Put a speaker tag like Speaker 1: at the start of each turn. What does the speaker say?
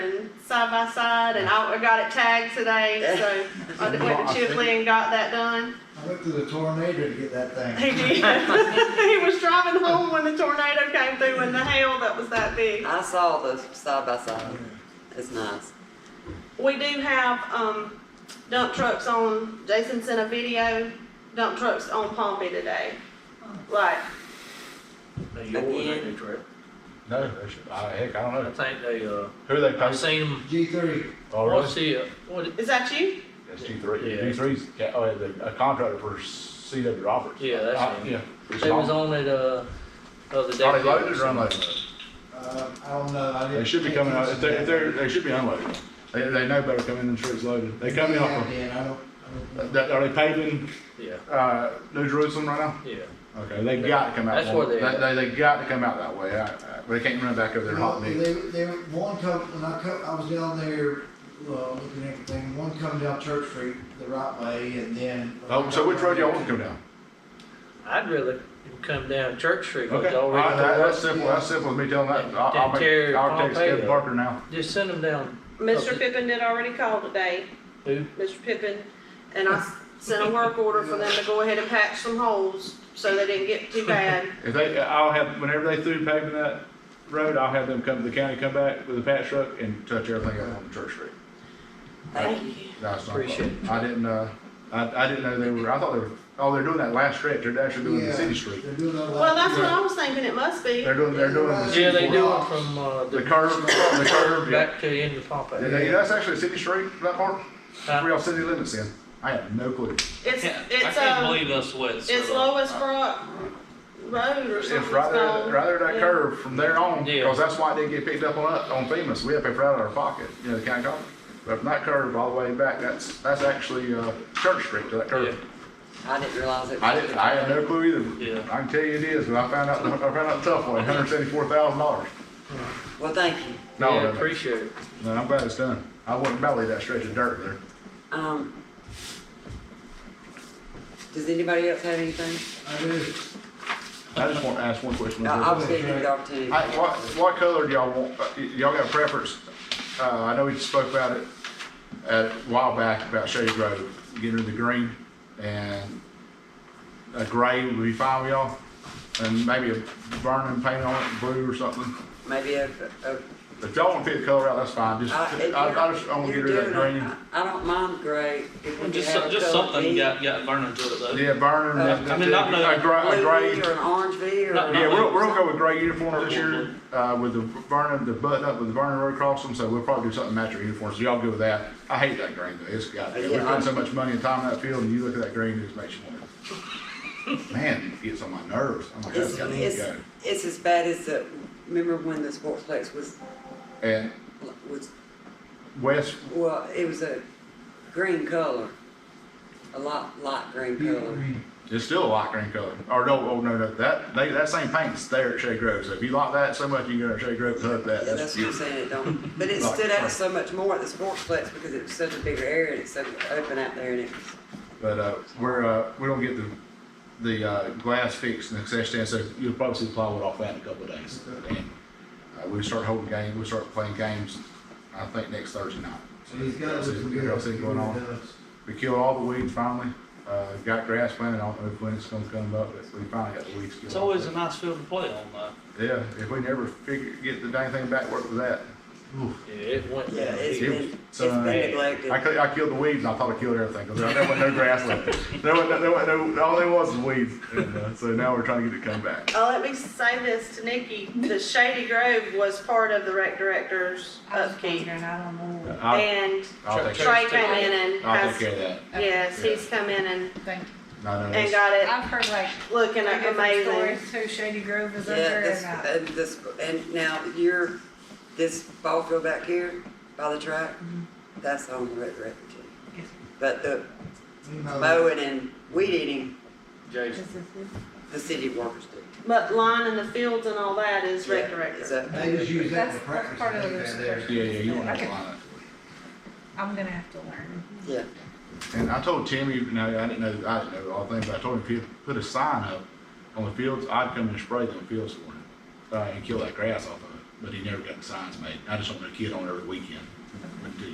Speaker 1: side by side and I I got it tagged today, so I went to Chipley and got that done.
Speaker 2: I went through the tornado to get that
Speaker 1: He
Speaker 2: thing.
Speaker 1: did. He was driving home when the tornado came through and the hail that was that big.
Speaker 3: I saw the side by side. It's nice.
Speaker 1: We do have, um, dump trucks on, Jason sent a video, dump trucks on Pompey today. Like,
Speaker 4: They yours, ain't they,
Speaker 3: Again.
Speaker 4: Trey?
Speaker 5: No, they should, I, heck, I don't
Speaker 4: I
Speaker 5: know.
Speaker 4: think they, uh,
Speaker 5: Who are they
Speaker 4: I've
Speaker 5: paying?
Speaker 4: seen them,
Speaker 2: G three,
Speaker 5: Oh,
Speaker 4: what's
Speaker 5: really?
Speaker 4: the, uh, what, it-
Speaker 1: is that you?
Speaker 5: That's G three.
Speaker 4: Yeah.
Speaker 5: G three's, ca- oh, yeah, the- a contractor for C W Roberts.
Speaker 4: Yeah, that's
Speaker 5: Uh,
Speaker 4: him.
Speaker 5: Yeah.
Speaker 4: they was on it, uh, the other day.
Speaker 5: Are they loaded or unloaded?
Speaker 2: uh, I don't know, I didn't.
Speaker 5: They should be
Speaker 2: pay
Speaker 5: coming out, if
Speaker 2: attention
Speaker 5: they're,
Speaker 2: to
Speaker 5: if they're, they should be unloaded. They, they know better coming than sure it's loaded. They
Speaker 2: that.
Speaker 5: coming
Speaker 2: Yeah,
Speaker 5: off
Speaker 2: Dan, I don't, I
Speaker 5: of,
Speaker 2: don't.
Speaker 5: that, are they paving,
Speaker 4: Yeah,
Speaker 5: uh, New Jerusalem right now?
Speaker 4: yeah.
Speaker 5: Okay, they got to come out.
Speaker 4: That's
Speaker 5: one-
Speaker 4: where they at.
Speaker 5: They, they, they got to come out that way. I, I, they can't run back over there
Speaker 2: Well,
Speaker 5: hot
Speaker 2: They,
Speaker 5: meat.
Speaker 2: they, one come, when I come, I was down there, uh, looking at everything, one come down Church Street the right way and then. uh,
Speaker 5: Oh, so which road y'all want to go down?
Speaker 4: I'd rather them come down Church Street, but
Speaker 5: Okay,
Speaker 4: they
Speaker 5: all right,
Speaker 4: already
Speaker 5: that-
Speaker 4: know
Speaker 5: that's
Speaker 4: what.
Speaker 5: simple, that's simple as me telling that. I'll,
Speaker 4: Then
Speaker 5: I'll make,
Speaker 4: tear
Speaker 5: I'll text
Speaker 4: Pompeo.
Speaker 5: Kevin Parker now.
Speaker 4: Just send them down.
Speaker 1: Mr. Pippin did already call today.
Speaker 4: Who?
Speaker 1: Mr. Pippin, and I s- sent a work order for them to go ahead and patch some holes so they didn't get too bad.
Speaker 5: If they, I'll have, whenever they through paving that road, I'll have them come to the county, come back with a patch truck and touch everything up on Church Street.
Speaker 3: Thank you.
Speaker 1: you.
Speaker 5: That's not a
Speaker 4: Appreciate
Speaker 5: problem. I didn't, uh, I, I didn't know they were, I thought they were, oh, they're doing that last stretch, they're actually doing the
Speaker 2: Yeah,
Speaker 5: city street.
Speaker 2: They're doing that.
Speaker 1: Well, that's what I was thinking it must be.
Speaker 5: They're doing, they're doing the.
Speaker 4: Yeah, they
Speaker 2: Four
Speaker 4: do it
Speaker 2: blocks.
Speaker 4: from, uh,
Speaker 5: The
Speaker 4: the,
Speaker 5: curve, the curve, yeah.
Speaker 4: back to the end of Pompey.
Speaker 5: Yeah, yeah, That's actually a city street, that part,
Speaker 4: Huh?
Speaker 5: where y'all city limits in. I have no clue.
Speaker 1: It's,
Speaker 6: I can't
Speaker 1: it's, um,
Speaker 6: believe that's what it's.
Speaker 4: uh,
Speaker 1: it's
Speaker 6: about.
Speaker 1: Lois Brock Road or
Speaker 5: It's
Speaker 1: something. it's
Speaker 5: right there,
Speaker 1: called.
Speaker 5: right there that
Speaker 1: Yeah.
Speaker 5: curve from there on,
Speaker 4: Yeah.
Speaker 5: because that's why it didn't get picked up on, up- on FEMA, so we had to pay for it out of our pocket, you know, the county government. But from that curve all the way back, that's, that's actually, uh, Church Street to that curve.
Speaker 3: I didn't realize it. was-
Speaker 5: I didn't, I had no clue either.
Speaker 4: Yeah.
Speaker 5: I can tell you it is, but I found out, I found out the tough way, hundred seventy-four thousand dollars.
Speaker 3: Well, thank you.
Speaker 5: No,
Speaker 4: Yeah,
Speaker 5: no, no.
Speaker 4: appreciate it.
Speaker 5: no, I'm glad it's done. I wouldn't belly that stretch of dirt there.
Speaker 3: Um, does anybody else have anything?
Speaker 2: I do.
Speaker 5: I just want to ask one question.
Speaker 3: No, I was
Speaker 2: good.
Speaker 3: gonna give you the opportunity.
Speaker 5: I, what, what color do y'all want? Uh, y- Y'all got a preference? Uh, I know we spoke about it at, a while back about Shady Grove, getting rid of the green and a gray would be fine with y'all. And maybe a burning paint on it, blue or something.
Speaker 3: Maybe a, a.
Speaker 5: If y'all want to pick the color out, that's fine. Just,
Speaker 3: I-
Speaker 5: I, I just, I want to get
Speaker 3: Uh, you're
Speaker 5: rid of that
Speaker 3: doing it.
Speaker 5: green.
Speaker 3: I I don't mind gray. if we
Speaker 6: Just,
Speaker 3: have
Speaker 6: so-
Speaker 3: a
Speaker 6: just
Speaker 3: colored
Speaker 6: something
Speaker 3: V,
Speaker 6: got, got burning to it though.
Speaker 5: Yeah, burning,
Speaker 3: Uh,
Speaker 5: that's-
Speaker 6: I mean, not
Speaker 5: that's it. a gray, a
Speaker 3: Blue
Speaker 5: gray.
Speaker 3: V or an orange V or.
Speaker 6: No,
Speaker 5: Yeah, we'll, we'll go with gray uniform this year, uh, with the Vernon, the button up with the Vernon Road across them, so we'll probably do something match our uniforms, so y'all good with that? I hate that green though, it's got, we
Speaker 3: Yeah, I-
Speaker 5: spend so much money and time in that field, and you look at that green, it just makes you wonder. Man, it gets on my nerves, I'm like,
Speaker 3: It's,
Speaker 5: that's gotta
Speaker 3: it's,
Speaker 5: go.
Speaker 3: it's as bad as the, remember when the sportsplex was,
Speaker 5: And
Speaker 3: was,
Speaker 5: West,
Speaker 3: well, it was a green color. A lot, light green color.
Speaker 5: it's still a light green color, or no, oh, no, no, that, they, that same paint's there at Shea Grove, so if you like that so much, you can go to Shea Grove and hug that,
Speaker 3: Yeah,
Speaker 5: that's
Speaker 3: that's what I'm
Speaker 5: beautiful.
Speaker 3: saying, it don't, but it
Speaker 5: Right,
Speaker 3: stood out
Speaker 5: right.
Speaker 3: so much more at the sportsplex because it was such a bigger area and it's so open out there and it was.
Speaker 5: But uh, we're uh, we don't get the the uh, glass fixed in the concession stand, so you'll probably see plywood off that in a couple of days. And uh, we start holding games, we start playing games. I think next Thursday night.
Speaker 2: So he's got uh,
Speaker 5: Y'all see-
Speaker 2: looking
Speaker 5: y'all
Speaker 2: good.
Speaker 5: see going on. We killed all the weeds finally. Uh, got grass planted. I don't know if when it's going to come up, but we finally got the weeds killed.
Speaker 6: It's always a
Speaker 5: off.
Speaker 6: nice field to play on though.
Speaker 5: yeah. If we never figure get the dang thing back, work with that.
Speaker 4: Yeah, it went
Speaker 3: Yeah,
Speaker 4: down.
Speaker 3: it's
Speaker 5: It was-
Speaker 3: been, it's
Speaker 5: so,
Speaker 3: been
Speaker 5: uh,
Speaker 3: neglected.
Speaker 5: I, cl- I killed the weeds and I thought I killed everything because there wasn't no grass left. There wasn't, there wasn't no, all there was was weeds. And, uh, so now we're trying to get it to come back.
Speaker 1: Oh, let me say this to Nikki, the Shady Grove was part of the rec director's
Speaker 7: I was
Speaker 1: upkeep.
Speaker 7: wondering, I don't know.
Speaker 5: I'll,
Speaker 1: And
Speaker 5: I'll take care,
Speaker 1: Trey came in and
Speaker 5: I'll take
Speaker 1: has,
Speaker 5: care of that.
Speaker 1: yes, he's come in and,
Speaker 7: Thank
Speaker 5: No, no,
Speaker 1: and uh,
Speaker 5: that's,
Speaker 1: got it
Speaker 7: I've heard like
Speaker 1: looking
Speaker 7: three different
Speaker 1: amazing.
Speaker 7: stories who Shady Grove is
Speaker 3: Yeah,
Speaker 7: under
Speaker 3: this,
Speaker 7: and uh,
Speaker 3: and this, and now your, this ball field back here by the track, that's on the red record.
Speaker 7: Yes.
Speaker 3: But the
Speaker 2: You
Speaker 5: Oh.
Speaker 2: know,
Speaker 3: mowing and weed eating,
Speaker 4: Jason.
Speaker 7: this is it.
Speaker 3: the city workers do.
Speaker 1: But lining the fields and all that is rec
Speaker 3: Yeah,
Speaker 1: director.
Speaker 3: it's up.
Speaker 2: They just use that
Speaker 7: That's-
Speaker 2: for
Speaker 7: that's
Speaker 2: practice.
Speaker 7: part of
Speaker 2: and
Speaker 7: the
Speaker 2: things like that.
Speaker 7: research.
Speaker 5: yeah, yeah, you don't have to
Speaker 7: Okay.
Speaker 5: line
Speaker 7: I'm gonna have to learn.
Speaker 3: Yeah,
Speaker 5: it. And I told Timmy, you know, I didn't know, I didn't know all the things, but I told him if he put a sign up on the fields, I'd come and spray them fields for him uh, and kill that grass off of it. but he never got the signs made. I just don't want a kid on every weekend.
Speaker 7: Okay.